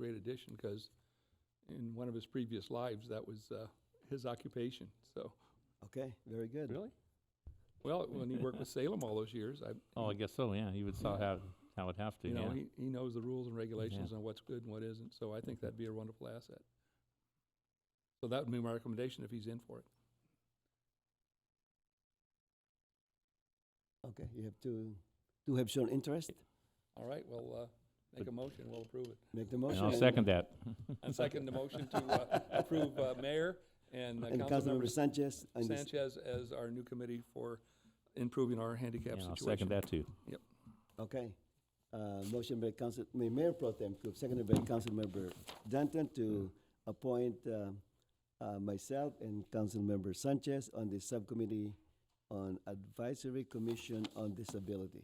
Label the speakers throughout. Speaker 1: great addition because in one of his previous lives, that was uh, his occupation. So,
Speaker 2: Okay, very good.
Speaker 3: Really?
Speaker 1: well, when he worked with Salem all those years, I,
Speaker 3: Oh, I guess so, yeah, he would saw how, how it'd have to,
Speaker 1: you know,
Speaker 3: yeah.
Speaker 1: he, he knows the rules and regulations on what's good and what isn't. So I think that'd be a wonderful asset. So that would be my recommendation if he's in for it.
Speaker 2: Okay, you have to, to have shown interest,
Speaker 1: All right, well, uh, make a motion, we'll approve it.
Speaker 2: make the
Speaker 3: And
Speaker 2: motion.
Speaker 3: I'll second that.
Speaker 1: And second the motion to uh, approve uh, Mayor and uh,
Speaker 2: And Councilmember
Speaker 1: Councilmember
Speaker 2: Sanchez. and this-
Speaker 1: Sanchez as our new committee for improving our handicap
Speaker 3: Yeah,
Speaker 1: situation.
Speaker 3: I'll second that too.
Speaker 2: Okay. Uh, Motion by Council, may Mayor Pro Tem Cook, seconded by Councilmember Danton to appoint uh, uh, myself and Councilmember Sanchez on the Subcommittee on Advisory Commission on Disability.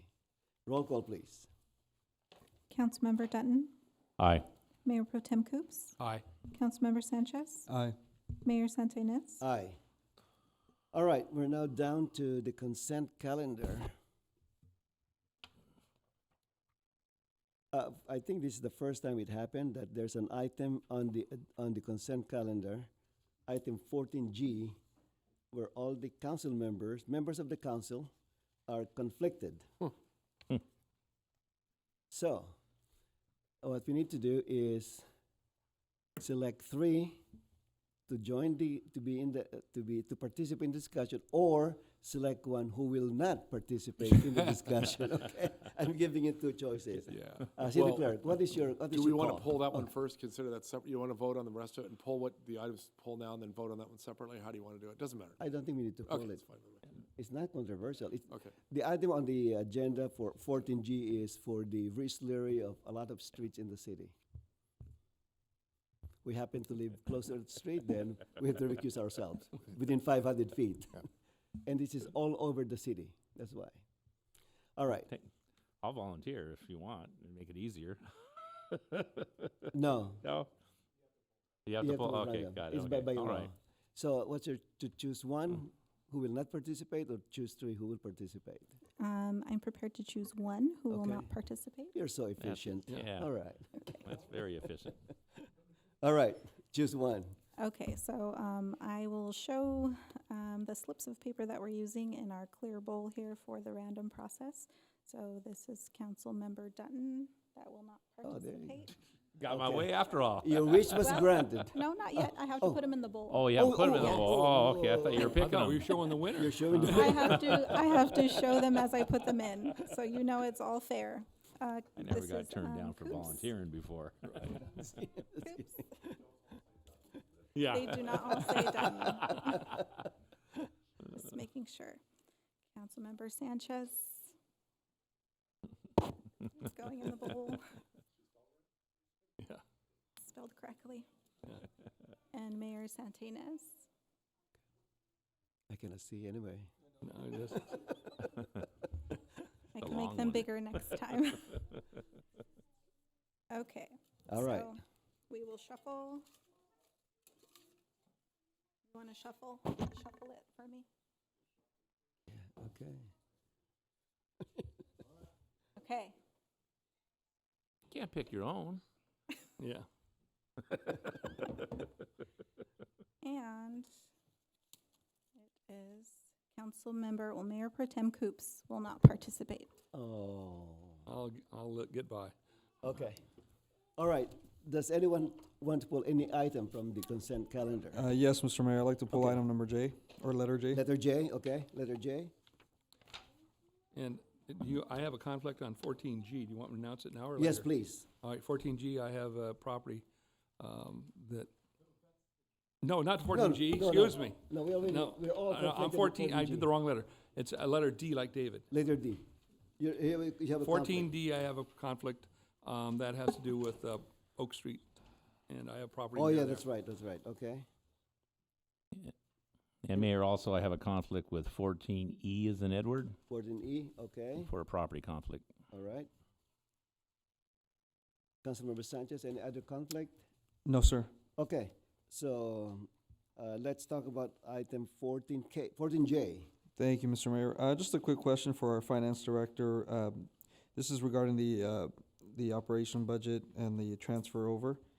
Speaker 2: Roll call, please.
Speaker 4: Councilmember Dutton,
Speaker 3: Aye.
Speaker 4: Mayor Pro Tem Coops,
Speaker 1: Aye.
Speaker 4: Councilmember Sanchez,
Speaker 1: Aye.
Speaker 4: Mayor Santenaz.
Speaker 2: Aye. All right, we're now down to the consent calendar. Uh, I think this is the first time it happened that there's an item on the, on the consent calendar, item fourteen G, where all the council members, members of the council, are conflicted.
Speaker 1: Hmm.
Speaker 3: Hmm.
Speaker 2: So, what we need to do is select three to join the to be in the uh, to be to participate in discussion or select one who will not participate in the discussion okay i'm giving you two choices
Speaker 5: Yeah.
Speaker 2: uh, city
Speaker 5: Well,
Speaker 2: clerk what is your what is
Speaker 5: Do we
Speaker 2: your
Speaker 5: want to
Speaker 2: call?
Speaker 5: pull that one first, consider that separate? You want to vote on the rest of it and pull what the items, pull now and then vote on that one separately? How do you want to do it? Doesn't matter.
Speaker 2: i don't think we need to pull
Speaker 5: Okay,
Speaker 2: it
Speaker 5: that's fine. with me.
Speaker 2: it's not controversial it's,
Speaker 5: Okay.
Speaker 2: the item on the agenda for 14g is for the reslurry of a lot of streets in the city we happen to live closer to the street then we have to recuse ourselves within 500 feet and this is all over the city that's why all right
Speaker 3: I'll volunteer if you want, and make it easier.
Speaker 2: No.
Speaker 3: No? You have
Speaker 2: you
Speaker 3: to pull,
Speaker 2: vote
Speaker 3: okay,
Speaker 2: random.
Speaker 3: got it,
Speaker 2: It's by, by
Speaker 3: okay, all
Speaker 2: law.
Speaker 3: right. Mm.
Speaker 2: So what's your, to choose one who will not participate or choose three who will participate?
Speaker 4: Um, I'm prepared to choose one who will
Speaker 2: Okay.
Speaker 4: not participate.
Speaker 2: You're so efficient.
Speaker 3: Yeah,
Speaker 2: All right.
Speaker 3: that's very efficient.
Speaker 2: All right. Choose one.
Speaker 4: Okay, so, um, I will show, um, the slips of paper that we're using in our clear bowl here for the random process. So this is Councilmember Dutton that will not
Speaker 2: Oh, there you go.
Speaker 4: participate.
Speaker 3: Got my
Speaker 2: Okay.
Speaker 3: way after all.
Speaker 2: Your wish was
Speaker 4: Well-
Speaker 2: granted.
Speaker 4: No, not yet. I have to
Speaker 2: oh.
Speaker 4: put him in the bowl.
Speaker 3: Oh, yeah,
Speaker 2: Oh,
Speaker 3: put 'em in the
Speaker 4: oh,
Speaker 3: wall. Oh, okay, I
Speaker 2: oh,
Speaker 3: thought you were
Speaker 1: I
Speaker 3: picking
Speaker 1: thought we were
Speaker 3: them.
Speaker 1: showing the winner.
Speaker 2: You're showing the
Speaker 4: I have to, I have to show them as I put them in, so you know it's all fair. Uh,
Speaker 3: I never
Speaker 4: this is,
Speaker 3: got turned
Speaker 4: um,
Speaker 3: down for
Speaker 4: Coops.
Speaker 3: volunteering before.
Speaker 4: Coops.
Speaker 3: Yeah.
Speaker 4: They do not all say done. Just making sure. Councilmember Sanchez. It's going in the bowl.
Speaker 1: Yeah.
Speaker 4: Spelled correctly. And Mayor Santinez.
Speaker 2: I cannot see anyway.
Speaker 1: No, it isn't.
Speaker 4: I
Speaker 3: A
Speaker 4: can
Speaker 3: long
Speaker 4: make them
Speaker 3: one.
Speaker 4: bigger next time. Okay.
Speaker 2: All right.
Speaker 4: So We will shuffle. You want to shuffle? Shuffle it for me?
Speaker 2: Okay.
Speaker 4: Okay.
Speaker 3: Can't pick your own.
Speaker 1: Yeah.
Speaker 4: And it is council member, well, Mayor Pro Tem Coops will not participate.
Speaker 2: Oh.
Speaker 1: I'll, I'll let- get by.
Speaker 2: Okay. All right. Does anyone want to pull any item from the consent calendar?
Speaker 6: Uh, yes, Mr. Mayor, I'd like to pull
Speaker 2: Okay.
Speaker 6: item number J, or letter J.
Speaker 2: Letter J, okay, letter J.
Speaker 1: And you, I have a conflict on fourteen G. Do you want me to announce it now or later?
Speaker 2: Yes, please.
Speaker 1: All right, fourteen G, I have a property, um, that, no, not fourteen G,
Speaker 2: no, Oh, no.
Speaker 1: excuse me.
Speaker 2: No, we already,
Speaker 1: No,
Speaker 2: we're all.
Speaker 1: I- I'm
Speaker 2: conflicted with
Speaker 1: fourteen, I
Speaker 2: 14G.
Speaker 1: did the wrong letter. It's a letter D like David.
Speaker 2: Letter D. You, you you have a
Speaker 1: Fourteen
Speaker 2: conflict.
Speaker 1: D, I have a conflict, um, that has to do with, uh, Oak Street, and I have property.
Speaker 2: Oh,
Speaker 1: near
Speaker 2: yeah,
Speaker 1: there.
Speaker 2: that's right, that's right, okay.
Speaker 3: And Mayor, also I have a conflict with fourteen E as in Edward
Speaker 2: Fourteen E, okay,
Speaker 3: for a property conflict.
Speaker 2: all right. Councilmember Sanchez, any other conflict?
Speaker 6: No, sir.
Speaker 2: Okay, so, uh, let's talk about item fourteen K, fourteen J.
Speaker 6: Thank you, Mr. Mayor. Uh, just a quick question for our finance director. Um, this is regarding the, uh, the operation budget and the transfer over.